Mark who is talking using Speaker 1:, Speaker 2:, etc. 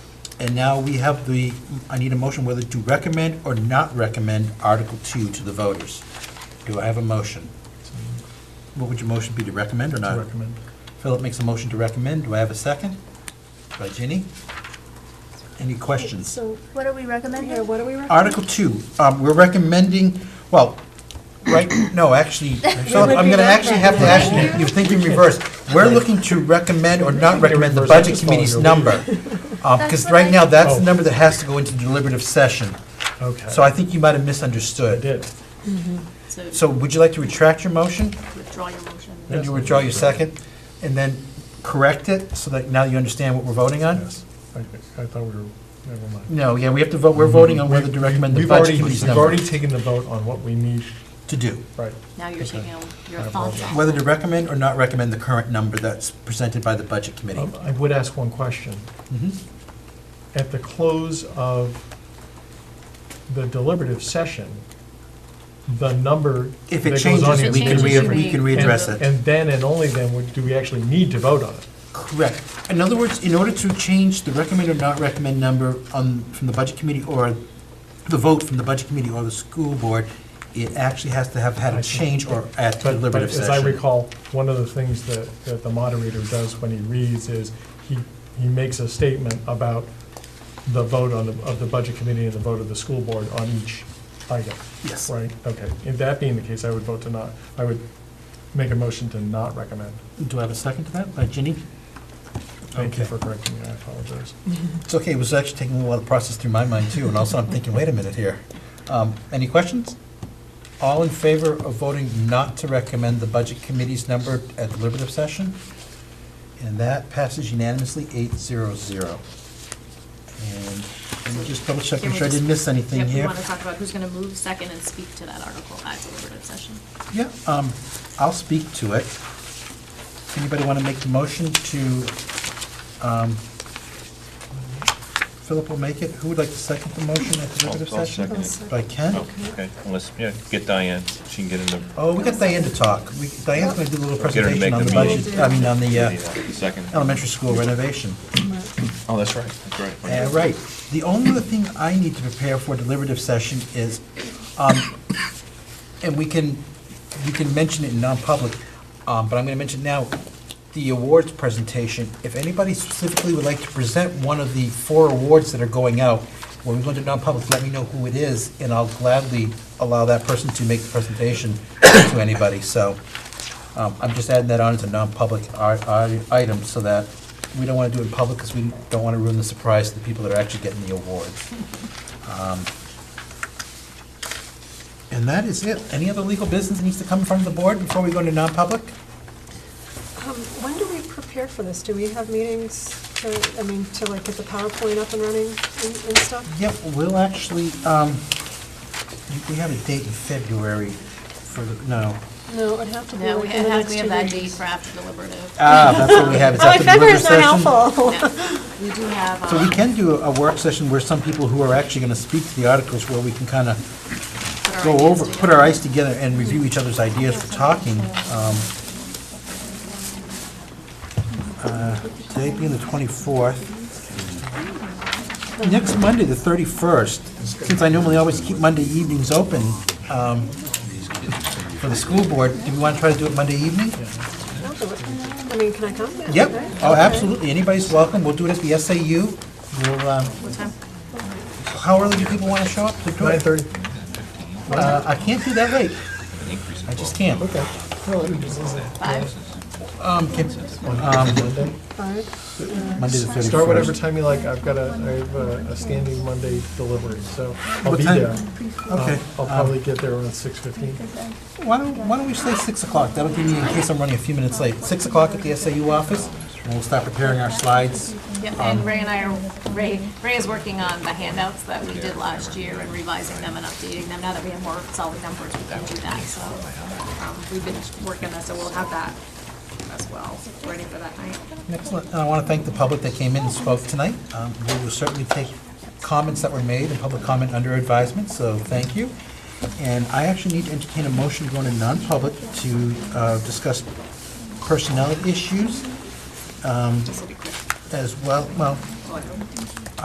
Speaker 1: And now we have the, I need a motion whether to recommend or not recommend Article 2 to the voters. Do I have a motion? What would your motion be, to recommend or
Speaker 2: To
Speaker 1: not?
Speaker 2: recommend.
Speaker 1: Philip makes a motion to recommend. Do I have a second? By Ginny? Any questions?
Speaker 3: So what are we recommending?
Speaker 4: Yeah, what are we recommending?
Speaker 1: Article 2, um, we're recommending, well, right, no, actually, Philip, I'm going to actually have to ask you, you're thinking reverse. We're looking to recommend or not recommend the Budget Committee's number. Because
Speaker 3: That's
Speaker 1: right now,
Speaker 3: what I-
Speaker 1: that's the
Speaker 2: Oh.
Speaker 1: number that has to go into deliberative session.
Speaker 2: Okay.
Speaker 1: So I think you might have
Speaker 2: I
Speaker 1: misunderstood.
Speaker 2: did.
Speaker 1: So would you like to retract your motion?
Speaker 5: Withdraw your motion.
Speaker 1: And
Speaker 2: Yes.
Speaker 1: you withdraw your second? And then correct it so that now you understand what we're voting on?
Speaker 2: Yes. I I thought we were, never mind.
Speaker 1: No, yeah, we have to vote, we're voting on whether to
Speaker 2: We've-
Speaker 1: recommend the
Speaker 2: we've
Speaker 1: budget
Speaker 2: already-
Speaker 1: committee's
Speaker 2: We've
Speaker 1: number
Speaker 2: already taken the vote on what we need,
Speaker 1: to do.
Speaker 2: right.
Speaker 5: Now you're
Speaker 2: Okay.
Speaker 5: taking your
Speaker 2: I
Speaker 5: thoughts
Speaker 2: apologize.
Speaker 5: out.
Speaker 1: Whether to recommend or not recommend the current number that's presented by the budget committee.
Speaker 2: Um, I would ask one question.
Speaker 1: Mhm.
Speaker 2: At the close of the deliberative session, the number
Speaker 1: If
Speaker 2: that
Speaker 1: it
Speaker 2: goes
Speaker 1: changes,
Speaker 2: on
Speaker 5: If it
Speaker 2: in-
Speaker 1: we can
Speaker 5: changes,
Speaker 1: re,
Speaker 5: you
Speaker 1: we can
Speaker 5: may-
Speaker 1: readdress
Speaker 2: And-
Speaker 1: it.
Speaker 2: And then, and only then, would- do we actually need to vote on it.
Speaker 1: Correct. In other words, in order to change the recommend or not recommend number on, from the budget committee or the vote from the budget committee or the school board, it actually has to have had
Speaker 2: I
Speaker 1: a
Speaker 2: see.
Speaker 1: change or at
Speaker 2: But-
Speaker 1: deliberative
Speaker 2: But
Speaker 1: session.
Speaker 2: as I recall, one of the things that, that the moderator does when he reads is, he, he makes a statement about the vote on, the- of the budget committee and the vote of the school board on each item,
Speaker 1: Yes.
Speaker 2: right? Okay, if that being the case, I would vote to not, I would make a motion to not recommend.
Speaker 1: Do I have a second to that by Ginny?
Speaker 2: Thank you
Speaker 1: Okay.
Speaker 2: for correcting me, I apologize.
Speaker 1: It's okay, it was actually taking a lot of process through my mind too, and also I'm thinking, wait a minute here. Um, Any questions? All in favor of voting not to recommend the Budget Committee's number at deliberative session? And that passes unanimously, eight zero zero. And let me just double check,
Speaker 5: Can
Speaker 1: make
Speaker 5: we
Speaker 1: sure I
Speaker 5: just-
Speaker 1: didn't miss anything
Speaker 5: Yep, we
Speaker 1: here.
Speaker 5: want to talk about who's going to move second and speak to that article at deliberative session.
Speaker 1: Yeah, um, I'll speak to it. Anybody want to make the motion to, um, Philip will make it. Who would like to second the motion at
Speaker 6: I'll-
Speaker 1: deliberative
Speaker 6: I'll
Speaker 1: session?
Speaker 6: second it.
Speaker 1: By Ken?
Speaker 6: Oh, Okay, unless, yeah, get Diane, she can get in the,
Speaker 1: Oh, we got Diane to talk. We- Diane's going to do a little
Speaker 6: Get her to
Speaker 1: presentation
Speaker 6: make
Speaker 1: on
Speaker 6: the
Speaker 1: the budget, I mean, on the
Speaker 6: the
Speaker 1: uh,
Speaker 6: second.
Speaker 1: elementary school renovation.
Speaker 6: Oh, that's right, that's right.
Speaker 1: Uh, Right. The only other thing I need to prepare for deliberative session is, um, and we can, you can mention it in non-public, um, but I'm going to mention now, the awards presentation. If anybody specifically would like to present one of the four awards that are going out, when we go into non-public, let me know who it is, and I'll gladly allow that person to make the presentation to anybody. So um, I'm just adding that on as a non-public i- i- item so that we don't want to do it in public because we don't want to ruin the surprise to the people that are actually getting the awards. Um, And that is it. Any other legal business that needs to come in front of the board before we go into non-public?
Speaker 4: Um, When do we prepare for this? Do we have meetings to, I mean, to like get the PowerPoint up and running and and stuff?
Speaker 1: Yep, we'll actually, um, we have a date in February for, the no.
Speaker 4: No, it'd have to be
Speaker 5: No, we
Speaker 4: like in the
Speaker 5: have,
Speaker 4: next
Speaker 5: we
Speaker 4: two
Speaker 5: have that date
Speaker 4: weeks.
Speaker 5: for after deliberative.
Speaker 1: Ah, that's what we have. It's
Speaker 4: Oh, my
Speaker 1: after the
Speaker 4: finger
Speaker 1: deliberative
Speaker 4: is not
Speaker 1: session.
Speaker 4: helpful.
Speaker 5: Yeah. We do have.
Speaker 1: So we
Speaker 5: um,
Speaker 1: can do a a work session where some people who are actually going to speak to the articles where we can kind of
Speaker 5: put our
Speaker 1: go
Speaker 5: ideas
Speaker 1: over, put our
Speaker 5: together.
Speaker 1: eyes together and review each other's ideas for talking. um, uh, Today being the 24th. Next Monday, the 31st, since I normally always keep Monday evenings open um, for the school board, do we want to try to do it Monday evening?
Speaker 4: I'll do it. I mean, can I come?
Speaker 1: Yep,
Speaker 4: Okay.
Speaker 1: oh, absolutely, anybody's welcome, we'll do it at the SAU. We'll, um,
Speaker 5: What time?
Speaker 1: How early do people want to show up to do it?
Speaker 2: 9:30?
Speaker 1: Uh, I can't do that late. I just can't.
Speaker 2: Okay. Well, I didn't just listen.
Speaker 5: Five?
Speaker 1: Um, can- um,
Speaker 2: Monday?
Speaker 4: Five.
Speaker 1: Monday the 31st.
Speaker 2: Start whatever time you like, I've got a, I have a a standing Monday delivery, so I'll
Speaker 1: What
Speaker 2: be
Speaker 1: time?
Speaker 2: there.
Speaker 1: Okay.
Speaker 2: Um, I'll probably get there around 6:15.
Speaker 1: Why don't, why don't we say 6 o'clock? That'll give me, in case I'm running a few minutes late, 6 o'clock at the SAU office, and we'll start preparing our slides.
Speaker 5: Yep, and Ray and I are, Ray, Ray is working on the handouts that we did last year and revising them and updating them. Now that we have more solid numbers, we can do that, so. um, We've been working that, so we'll have that as well, ready for that night.
Speaker 1: Excellent. And I want to thank the public that came in and spoke tonight. Um, We will certainly take comments that were made and public comment under advisement, so thank you. And I actually need to entertain a motion going to non-public to uh, discuss personnel issues um, as well, well,